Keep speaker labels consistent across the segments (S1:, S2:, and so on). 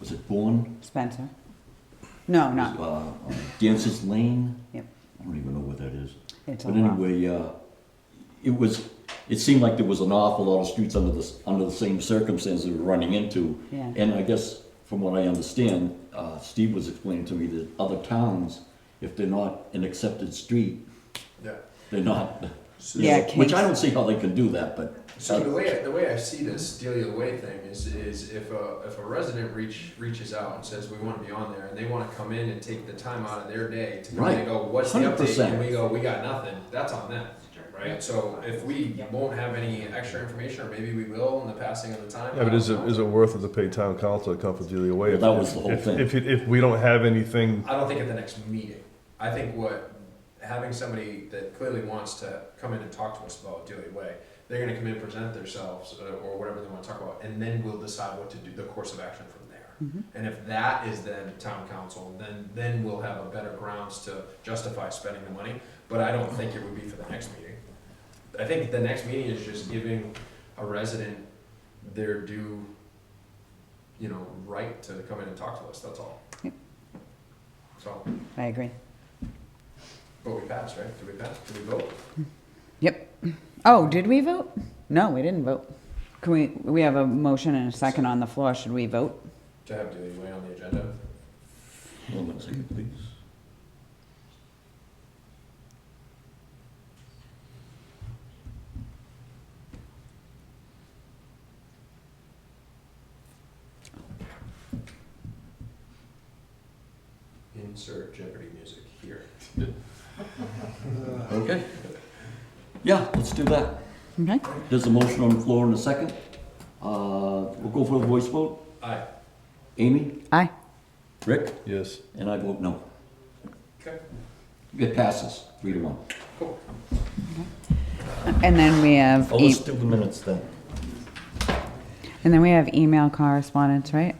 S1: was it Bourne?
S2: Spencer? No,
S1: Was,
S2: not,
S1: uh, on Dancer's Lane?
S2: Yep.
S1: I don't even know where that is.
S2: it's a
S1: But
S2: lot.
S1: anyway, uh, it was, it seemed like there was an awful lot of streets under the, under the same circumstances we were running into.
S2: Yeah.
S1: And I guess, from what I understand, uh, Steve was explaining to me that other towns, if they're not an accepted street,
S3: Yeah.
S1: they're not,
S2: Yeah,
S1: which I
S2: Kings-
S1: don't see how they can do that, but. uh,
S3: So the way the way I see this deal your way thing is is if a if a resident reach reaches out and says we want to be on there and they want to come in and take the time out of their day to come in
S1: Right.
S3: and go what's the
S1: 100%.
S3: update and we go we got nothing that's on them right so if we won't have any extra information or maybe we will in the passing of the time
S4: Yeah, but
S3: I
S4: is it,
S3: don't know.
S4: is it worth it to pay town council a couple deal
S1: Well,
S4: away? if-
S1: that was the whole
S4: if-
S1: thing.
S4: If, it- if we don't have anything,
S3: I don't think at the next meeting. I think what, having somebody that clearly wants to come in and talk to us about Daily Way, they're gonna come in, present themselves, uh, or whatever they wanna talk about, and then we'll decide what to do, the course of action from there. And if that is then town council, then, then we'll have a better grounds to justify spending the money, but I don't think it would be for the next meeting. I think the next meeting is just giving a resident their due, you know, right to come in and talk to us, that's all.
S2: Yep.
S3: So.
S2: I agree.
S3: But we passed, right? Did we pass? Did we vote?
S2: Yep. Oh, did we vote? No, we didn't vote. Can we, we have a motion and a second on the floor. Should we vote?
S3: To have Daily Way on the agenda?
S1: Hold on a second, please.
S3: Insert Jeopardy music here.
S1: Okay. Yeah, let's do that.
S2: Okay.
S1: There's a motion on the floor in a second. Uh, We'll go for the voice vote.
S3: Aye.
S1: Amy,
S2: Aye.
S1: Rick,
S4: yes.
S1: and I vote no.
S3: Okay.
S1: It passes, three to one.
S3: Cool.
S2: And then we have,
S1: Oh,
S2: e-
S1: let's do the minutes then.
S2: and then we have email correspondence, right?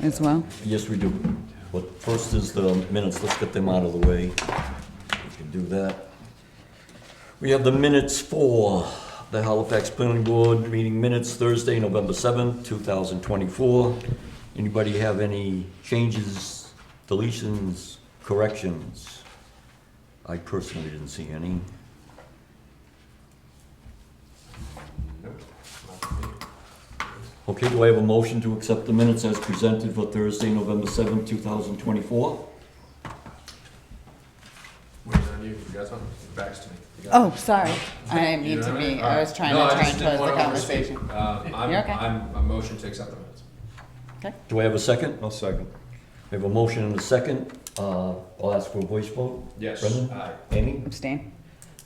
S2: As well?
S1: Yes, we do. But first is the minutes, let's get them out of the way. We can do that. We have the minutes for the Halifax Planning Board meeting minutes Thursday, November seventh, two thousand twenty-four. Anybody have any changes, deletions, corrections? I personally didn't see any.
S3: Nope. Not for me.
S1: Okay, do I have a motion to accept the minutes as presented for Thursday, November seventh, two thousand twenty-four?
S3: Where's on you? You got something? Backs to me. You got
S2: Oh, sorry. I didn't
S3: it.
S2: mean
S3: You
S2: to
S3: got it?
S2: be,
S3: All
S2: I
S3: right.
S2: was trying to
S3: No, I
S2: try
S3: just
S2: and
S3: didn't
S2: close the
S3: wanna overspeak.
S2: conversation.
S3: Um, I'm,
S2: You're okay.
S3: I'm, a motion to accept the minutes.
S1: Do I have a second?
S4: I'll second.
S1: We have a motion and a second. Uh, I'll ask for a voice vote.
S3: Yes.
S1: Brendan?
S3: Aye.
S1: Amy?
S2: Abstain?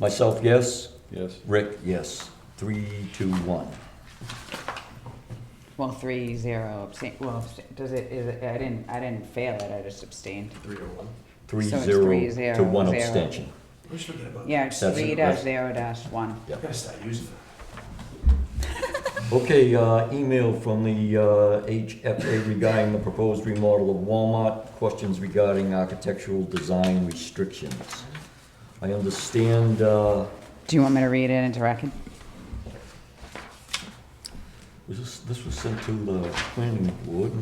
S1: Myself, yes.
S4: Yes.
S1: Rick, yes. Three, two, one.
S2: Well, three, zero, abstain. Well, abstain- does it, is it, I didn't, I didn't fail it. I just abstained.
S3: Three to one.
S1: Three,
S2: So it's
S1: zero,
S2: three,
S1: to
S2: zero,
S1: one
S2: zero.
S1: abstention.
S3: We should forget about
S2: Yeah, it's
S1: That's
S2: three
S1: it,
S2: dash
S1: right.
S2: zero dash one.
S3: I gotta start using it.
S1: Okay, uh, email from the uh, HFA regarding the proposed remodel of Walmart. Questions regarding architectural design restrictions. I understand, uh,
S2: Do you want me to read it into record?
S1: was this, this was sent to the planning board.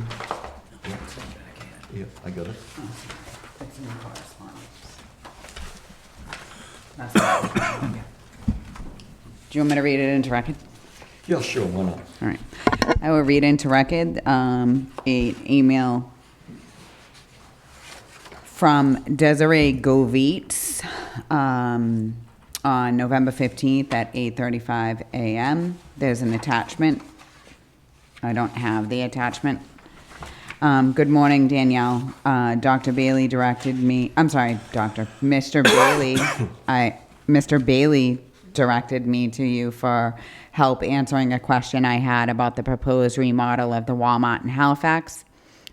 S1: Yeah, I got it.
S2: It's in the correspondence. Do you want me to read it into record?
S1: Yeah, sure, why not?
S2: All right. I will read into record, um, a email from Desiree Govitz, um, on November fifteenth at eight thirty-five AM. There's an attachment. I don't have the attachment. Um, good morning, Danielle. Uh, Dr. Bailey directed me, I'm sorry, Doctor, Mr. Bailey, I, Mr. Bailey directed me to you for help answering a question I had about the proposed remodel of the Walmart in Halifax.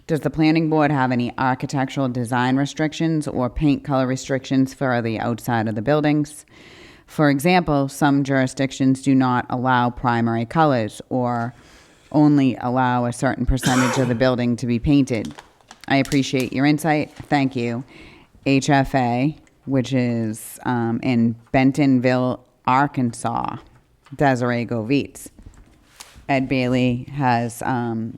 S2: Does the planning board have any architectural design restrictions or paint color restrictions for the outside of the buildings? For example, some jurisdictions do not allow primary colors or only allow a certain percentage of the building to be painted. I appreciate your insight. Thank you. HFA, which is um, in Bentonville, Arkansas, Desiree Govitz. Ed Bailey has um,